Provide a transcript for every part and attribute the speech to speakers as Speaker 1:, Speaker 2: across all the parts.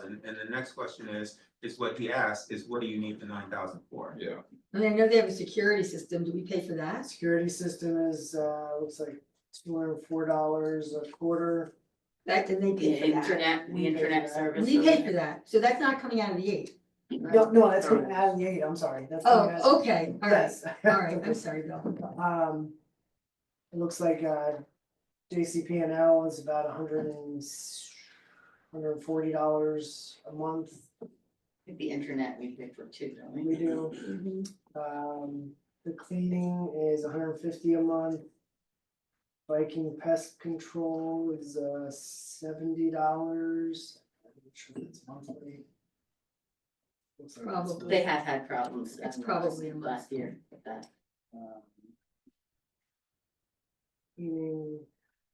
Speaker 1: question, and the next question is, is what he asked, is what do you need the nine thousand for?
Speaker 2: Yeah,
Speaker 3: And I know they have a security system, do we pay for that?
Speaker 4: Security system is, uh, looks like two hundred and four dollars a quarter.
Speaker 3: That, and they
Speaker 5: The
Speaker 3: pay for that,
Speaker 5: internet, the internet service.
Speaker 3: we pay for that, so that's not coming out of the eight.
Speaker 4: No, no, that's gonna add the eight, I'm sorry, that's. gonna add-
Speaker 3: Oh, okay, all right,
Speaker 4: Yes.
Speaker 3: all right, I'm sorry, Bill.
Speaker 4: Um, it looks like, uh, JCP and L is about a hundred and s- hundred and forty dollars a month,
Speaker 5: The internet we pay for too, don't we?
Speaker 4: we do. Um, the cleaning is hundred and fifty a month. Viking pest control is uh seventy dollars. I'm not sure if that's monthly. Looks like it's-
Speaker 3: Probably.
Speaker 5: They have had problems.
Speaker 3: It's
Speaker 5: um,
Speaker 3: probably a month.
Speaker 5: Last year, with that.
Speaker 4: um, Cleaning,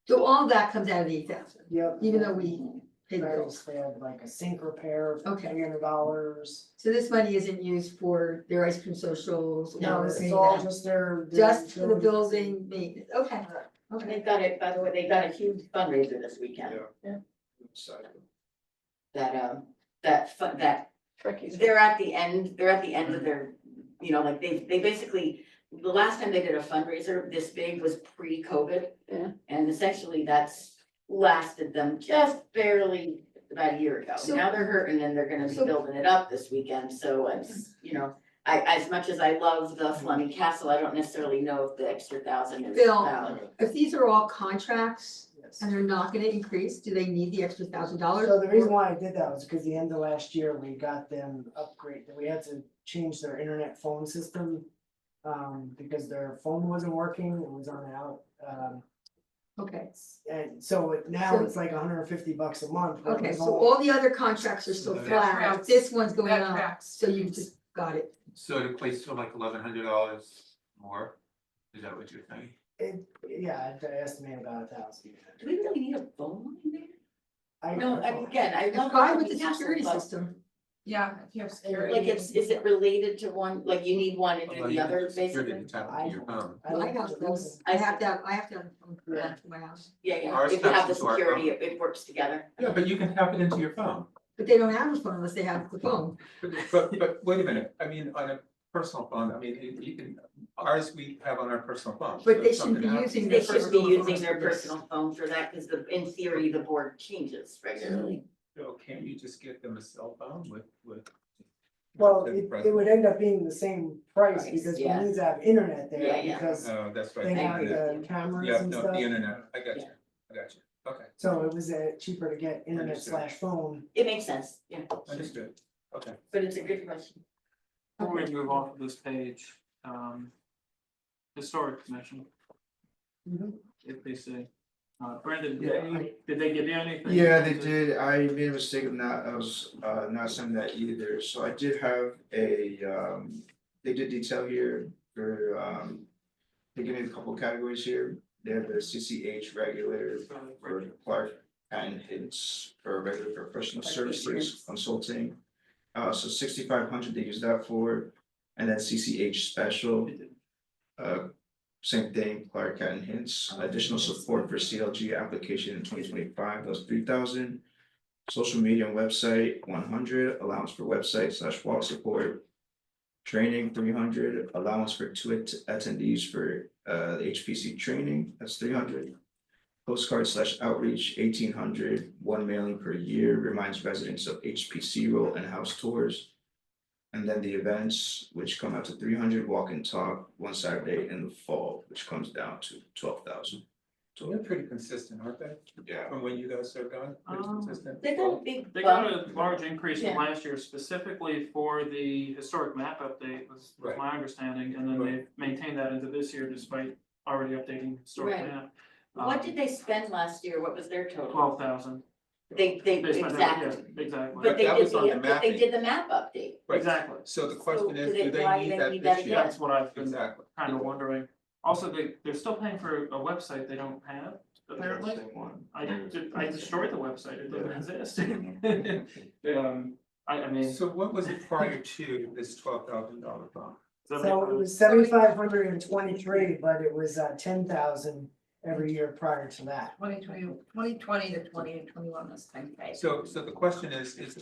Speaker 3: So all that comes out of the eight thousand,
Speaker 4: yep.
Speaker 3: even though we pay the bills.
Speaker 4: Barrels, they have like a sink repair for
Speaker 3: Okay.
Speaker 4: three hundred dollars.
Speaker 3: So this money isn't used for their ice cream socials
Speaker 4: No,
Speaker 3: or
Speaker 4: this
Speaker 3: any
Speaker 4: is
Speaker 3: of
Speaker 4: all
Speaker 3: that.
Speaker 4: just their. their
Speaker 3: just for the
Speaker 4: building-
Speaker 3: building maintenance, okay,
Speaker 5: And
Speaker 3: okay.
Speaker 5: They've got it, by the way, they got a huge fundraiser this weekend,
Speaker 2: yeah.
Speaker 6: Yeah.
Speaker 5: that, um, that, fu- that
Speaker 6: Turkeys.
Speaker 5: They're at the end, they're at the end of their, you know, like they, they basically, the last time they did a fundraiser this big was pre-COVID.
Speaker 6: Yeah.
Speaker 5: And essentially that's lasted them just barely about a year ago.
Speaker 3: So-
Speaker 5: Now they're hurting and they're gonna be
Speaker 3: So-
Speaker 5: building it up this weekend, so it's, you know, I, as much as I love the Fleming Castle, I don't necessarily know if the extra thousand is
Speaker 3: Bill.
Speaker 5: valid.
Speaker 3: If these are all contracts
Speaker 4: Yes.
Speaker 3: and they're not gonna increase, do they need the extra thousand dollars?
Speaker 4: So the reason why I did that was because the end of last year, we got them upgrade, we had to change their internet phone system. Um, because their phone wasn't working, it was on out, um,
Speaker 3: Okay,
Speaker 4: and so now
Speaker 3: So-
Speaker 4: it's like hundred and fifty bucks a month. but it
Speaker 3: okay,
Speaker 4: was
Speaker 3: so
Speaker 4: all-
Speaker 3: all the other contracts are still
Speaker 1: That
Speaker 3: flat,
Speaker 6: tracks.
Speaker 3: this one's going
Speaker 6: That
Speaker 3: up,
Speaker 6: tracks.
Speaker 3: so you just got it.
Speaker 1: So it equates to like eleven hundred dollars more, is that what you're saying?
Speaker 4: it- Yeah, I estimate about a thousand.
Speaker 5: Do we really need a phone line there? No, I mean,
Speaker 4: I,
Speaker 5: again, I love.
Speaker 3: Why with the
Speaker 5: Fleming Castle,
Speaker 3: security
Speaker 5: but-
Speaker 3: system?
Speaker 6: Yeah, if you have security.
Speaker 5: Like it's, is it related to one, like you need one and do the other
Speaker 1: Security
Speaker 5: basically?
Speaker 1: to tap into your phone.
Speaker 4: I
Speaker 3: My
Speaker 4: like
Speaker 3: house
Speaker 4: the
Speaker 3: does,
Speaker 4: building.
Speaker 3: I have to have, I have to have a phone for
Speaker 4: Yeah.
Speaker 3: that for my house,
Speaker 5: Yeah, yeah,
Speaker 1: Ours
Speaker 5: if you have the
Speaker 1: taps into our
Speaker 5: security,
Speaker 1: phone.
Speaker 5: it it works together.
Speaker 1: Yeah, but you can tap it into your phone.
Speaker 3: but they don't have a phone unless they have the phone.
Speaker 1: But but but wait a minute, I mean, on a personal phone, I mean, you- you can, ours we have on our personal phone.
Speaker 3: But
Speaker 1: so
Speaker 3: they
Speaker 1: if
Speaker 3: shouldn't
Speaker 1: something
Speaker 3: be
Speaker 1: happens-
Speaker 3: using
Speaker 5: They
Speaker 3: their
Speaker 5: should be
Speaker 3: personal
Speaker 5: using
Speaker 3: phones
Speaker 5: their
Speaker 3: for this.
Speaker 5: personal phone for that, because the, in theory, the board changes regularly.
Speaker 1: So can't you just get them a cell phone with with?
Speaker 4: Well,
Speaker 1: with
Speaker 4: it, it
Speaker 1: present-
Speaker 4: would end up being the same price
Speaker 5: Price,
Speaker 4: because we
Speaker 5: yeah.
Speaker 4: need to have internet
Speaker 5: Yeah,
Speaker 4: there
Speaker 5: yeah.
Speaker 4: because
Speaker 1: Oh, that's right.
Speaker 4: they
Speaker 1: the
Speaker 4: have
Speaker 1: internet.
Speaker 4: the cameras
Speaker 1: Yeah,
Speaker 4: and
Speaker 1: no,
Speaker 4: stuff.
Speaker 1: the internet, I got you,
Speaker 5: Yeah.
Speaker 1: I got you, okay,
Speaker 4: So it was uh cheaper to get internet
Speaker 1: Understood.
Speaker 4: slash phone.
Speaker 5: It makes sense, yeah,
Speaker 1: understood, okay.
Speaker 5: but it's a good question.
Speaker 7: Before we move off of this page, um. Historic commission,
Speaker 5: Mm-hmm.
Speaker 7: if they say, uh, Brendan, did any- did they give you anything?
Speaker 8: Yeah, they did, I made a mistake of not, I was uh not sending that either, so I did have a um, they did detail here for um. They gave me a couple categories here, they have the CCH regulator for Clark and it's for regular professional services consulting. Uh, so sixty five hundred, they use that for, and then CCH special, uh, same thing, Clark Cat and Hints, additional support for CLG application in twenty twenty-five, that's three thousand. Social media and website, one hundred, allowance for website slash wall support. Training, three hundred, allowance for two att- attendees for uh the HPC training, that's three hundred. Postcard slash outreach, 1800, one mailing per year, reminds residents of HPC role and house tours. And then the events, which come out to three hundred, walk and talk, one Saturday in the fall, which comes down to twelve thousand.
Speaker 1: They're pretty consistent, aren't they,
Speaker 8: Yeah,
Speaker 1: from when you guys served on, pretty
Speaker 7: Um,
Speaker 1: consistent?
Speaker 5: They got a big
Speaker 7: They got
Speaker 5: bump,
Speaker 7: a large increase from
Speaker 5: Yeah.
Speaker 7: last year specifically for the historic map update was was
Speaker 1: Right.
Speaker 7: my understanding, and then they maintained that into this year despite already updating historic
Speaker 5: Right.
Speaker 7: map.
Speaker 5: what
Speaker 1: um,
Speaker 5: did they spend last year, what was their total?
Speaker 7: Twelve thousand.
Speaker 5: They, they, exactly,
Speaker 7: Exactly,
Speaker 5: but they
Speaker 1: that
Speaker 5: did
Speaker 1: was on
Speaker 5: the,
Speaker 1: the
Speaker 5: but they
Speaker 1: mapping.
Speaker 5: did the map update,
Speaker 1: Right.
Speaker 7: exactly,
Speaker 1: So the question
Speaker 5: So
Speaker 1: is,
Speaker 5: do
Speaker 1: do
Speaker 5: they- why
Speaker 1: they
Speaker 5: do
Speaker 1: need
Speaker 5: they
Speaker 1: that
Speaker 5: need that
Speaker 1: this year?
Speaker 5: again?
Speaker 7: that's what I've been
Speaker 1: Exactly.
Speaker 7: kind of wondering. Also, they, they're still paying for a website they don't have, apparently.
Speaker 8: Same one.
Speaker 7: I did, I destroyed the website, it doesn't exist.
Speaker 8: Mhm.
Speaker 7: Um, I, I mean.
Speaker 1: So what was it prior to this twelve thousand dollar bond?
Speaker 4: So it
Speaker 7: somebody-
Speaker 4: was seventy-five hundred and twenty-three, but it was uh ten thousand every year prior to that.
Speaker 6: 2020 2020 to twenty and twenty-one was ten K.
Speaker 1: So so the question is, is